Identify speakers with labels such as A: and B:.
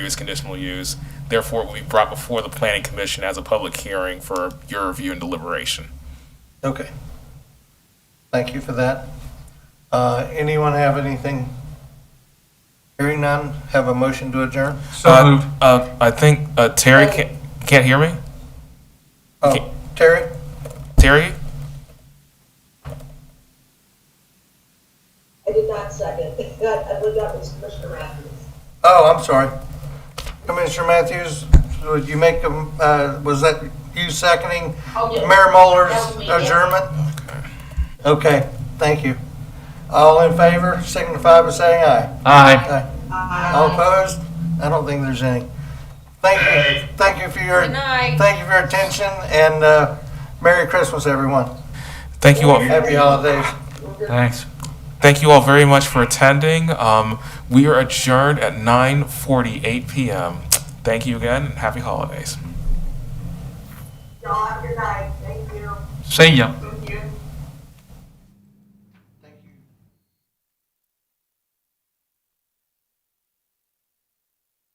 A: use, conditional use. Therefore, it will be brought before the planning commission as a public hearing for your review and deliberation.
B: Okay. Thank you for that. Uh, Anyone have anything? Hearing none, have a motion to adjourn?
A: Uh, uh, I think uh, Terry can't, can't hear me?
B: Oh, Terry?
A: Terry?
C: I did not second. That, I believe that was Commissioner Matthews.
B: Oh, I'm sorry. Commissioner Matthews, would you make, a m- uh, was that you seconding
C: Oh, yeah.
B: Mayor Muller's
C: That was me, yeah.
B: adjournment? Okay, thank you. All in favor, signify by saying aye.
A: Aye.
B: Aye. All opposed? I don't think there's any. Thank you, thank you for your,
D: Good night.
B: thank you for your attention, and uh, Merry Christmas, everyone.
A: Thank you all.
B: Happy holidays.
A: Thanks. Thank you all very much for attending. Um, we are adjourned at 9:48 p.m. Thank you again and happy holidays.
C: Y'all have a good night. Thank you.
E: See ya.